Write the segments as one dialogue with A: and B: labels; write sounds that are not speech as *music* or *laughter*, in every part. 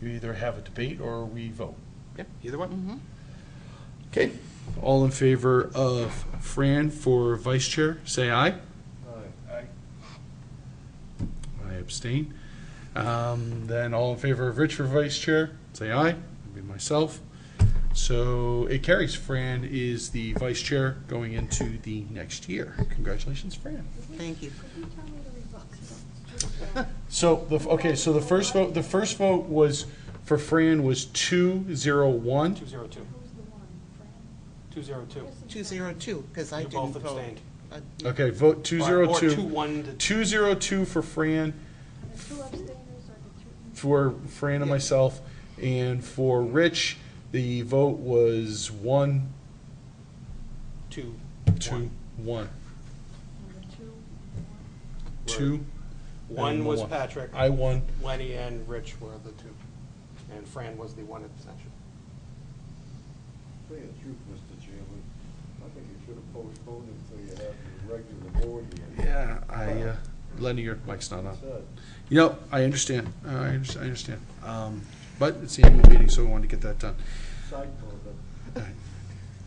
A: You either have a debate or we vote.
B: Yeah, either one.
A: Okay. All in favor of Fran for vice chair, say aye.
C: Aye.
A: I abstain. Um, Then all in favor of Rich for vice chair, say aye. That'd be myself. So it carries. Fran is the vice chair going into the next year. Congratulations, Fran.
B: Thank you.
A: So the, okay, so the first vote, the first vote was, for Fran was two zero one.
C: 202. 202.
B: 202, because I
C: You
B: didn't
C: both
B: vote. Uh,
C: abstained.
A: Okay, vote two zero
C: Or
A: two.
C: 2-1 to
A: Two zero two for Fran,
D: two abstainers or the two?
A: for Fran and myself, and for Rich, the vote was one,
C: 2.
A: two, one,
C: Were-
A: two.
C: One
A: and
C: was Patrick.
A: I won.
C: Lenny and Rich were the two. And Fran was the one abstention.
E: Tell you the truth, Mr. Chairman, I think you should have postponed it until you have the regular board meeting.
A: Yeah, I, uh, Lenny, your mic's not on.
E: Said,
A: You know, I understand, Uh, I under- I understand. Um, But it's the annual meeting, so we wanted to get that done.
E: cycle that
A: All right.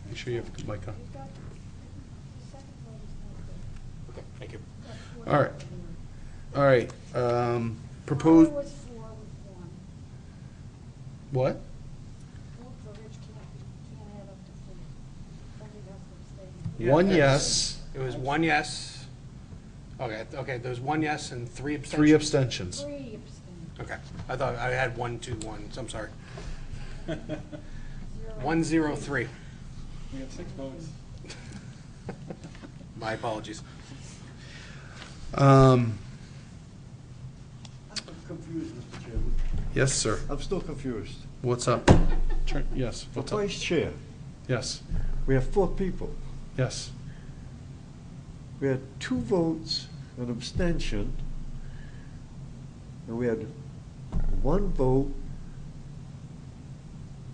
A: Make sure you have the mic on.
D: You've got, the second vote is not there.
C: Okay, thank you.
D: That's
A: All right. All right, um, propose,
D: Mine was four with one.
A: what?
D: Vote for Rich can't, can't add up to four. Only that's abstaining.
C: Yeah,
A: One
C: that's-
A: yes,
C: It was one yes. Okay, okay, there was one yes and three abstentions.
A: three abstentions.
D: Three abstain,
C: Okay, I thought I had one, two, one, so I'm sorry.
D: zero.
C: One, zero, three.
F: *laughs* We have six votes.
C: My apologies.
A: Um,
E: I'm confused, Mr. Chairman.
A: yes, sir.
E: I'm still confused.
A: What's up? Turn, yes,
E: The
A: what's up?
E: vice chair,
A: Yes,
E: we have four people.
A: yes.
E: We had two votes, an abstention, and we had one vote.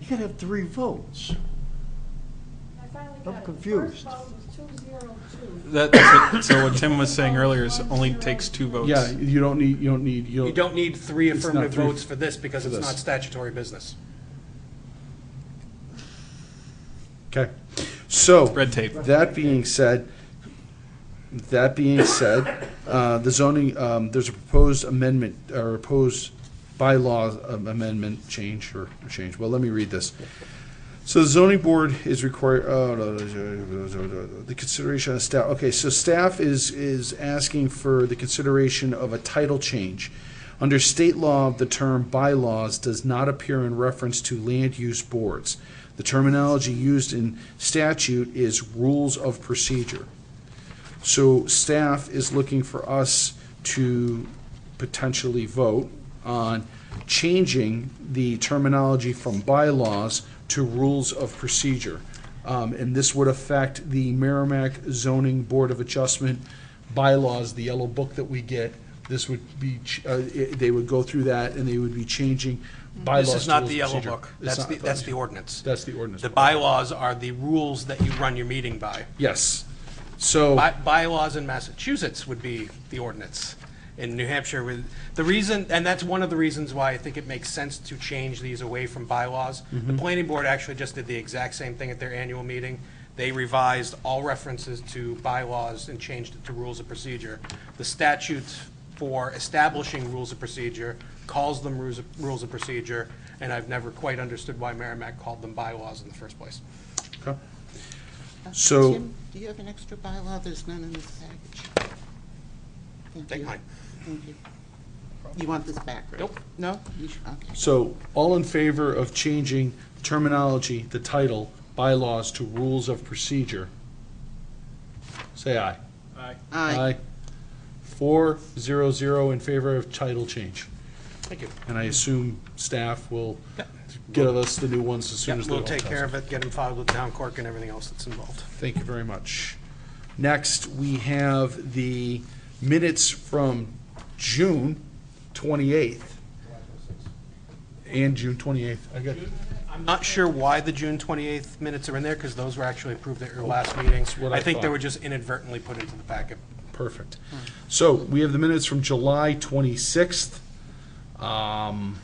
E: You gotta have three votes.
D: I finally
E: I'm
D: got it.
E: confused.
D: The first vote was two zero two.
F: That, that's what- so what Tim was saying earlier is only takes two votes.
A: Yeah, you don't need, you don't need, you
C: You don't need three
A: It's not
C: affirmative
A: three
C: votes for this because
A: for
C: it's
A: this.
C: not statutory business.
A: Okay, so.
F: Red tape.
A: That being said, that being said, uh, the zoning, um, there's a proposed amendment, or proposed bylaw amendment change, or change, well, let me read this. So the zoning board is required, oh, no, no, no, no, no, no, the consideration of staff, okay, so staff is, is asking for the consideration of a title change. Under state law, the term bylaws does not appear in reference to land use boards. The terminology used in statute is rules of procedure. So staff is looking for us to potentially vote on changing the terminology from bylaws to rules of procedure. Um, and this would affect the Merrimack Zoning Board of Adjustment bylaws, the yellow book that we get. This would be, ch- uh, it- they would go through that and they would be changing bylaws
C: This is
A: to
C: not
A: rules
C: the
A: of
C: yellow
A: procedure.
C: book.
A: It's
C: That's
A: not-
C: the, that's the ordinance.
A: That's the ordinance.
C: The
A: book.
C: bylaws are the rules that you run your meeting by.
A: Yes. So.
C: By- Bylaws in Massachusetts would be the ordinance. In New Hampshire, with, the reason, and that's one of the reasons why I think it makes sense to change these away from bylaws. The planning board actually just did the exact same thing at their annual meeting. They revised all references to bylaws and changed it to rules of procedure. The statutes for establishing rules of procedure calls them rules of, rules of procedure, and I've never quite understood why Merrimack called them bylaws in the first place.
A: Okay. So-
B: Tim, do you have an extra bylaw? There's none in this package. Thank
C: Take
B: you.
C: mine.
B: Thank you. You want this back, right?
C: Nope.
B: No? You should- okay.
A: So, all in favor of changing terminology, the title, bylaws to rules of procedure? Say aye. Uh,
B: Aye.
A: Four, zero, zero in favor of title change.
C: Thank you.
A: And I assume staff will
C: Yep.
A: get us the new ones as soon as
C: Yep,
A: they're all
C: we'll take care
A: done.
C: of it, get them filed with town clerk and everything else that's involved.
A: Thank you very much. Next, we have the minutes from June 28th. And June 28th. I got,
C: I'm not sure why the June 28th minutes are in there, because those were actually approved at your last meeting.
A: That's what I
C: I think they
A: thought.
C: were just inadvertently put into the packet.
A: Perfect. So we have the minutes from July 26th. Um,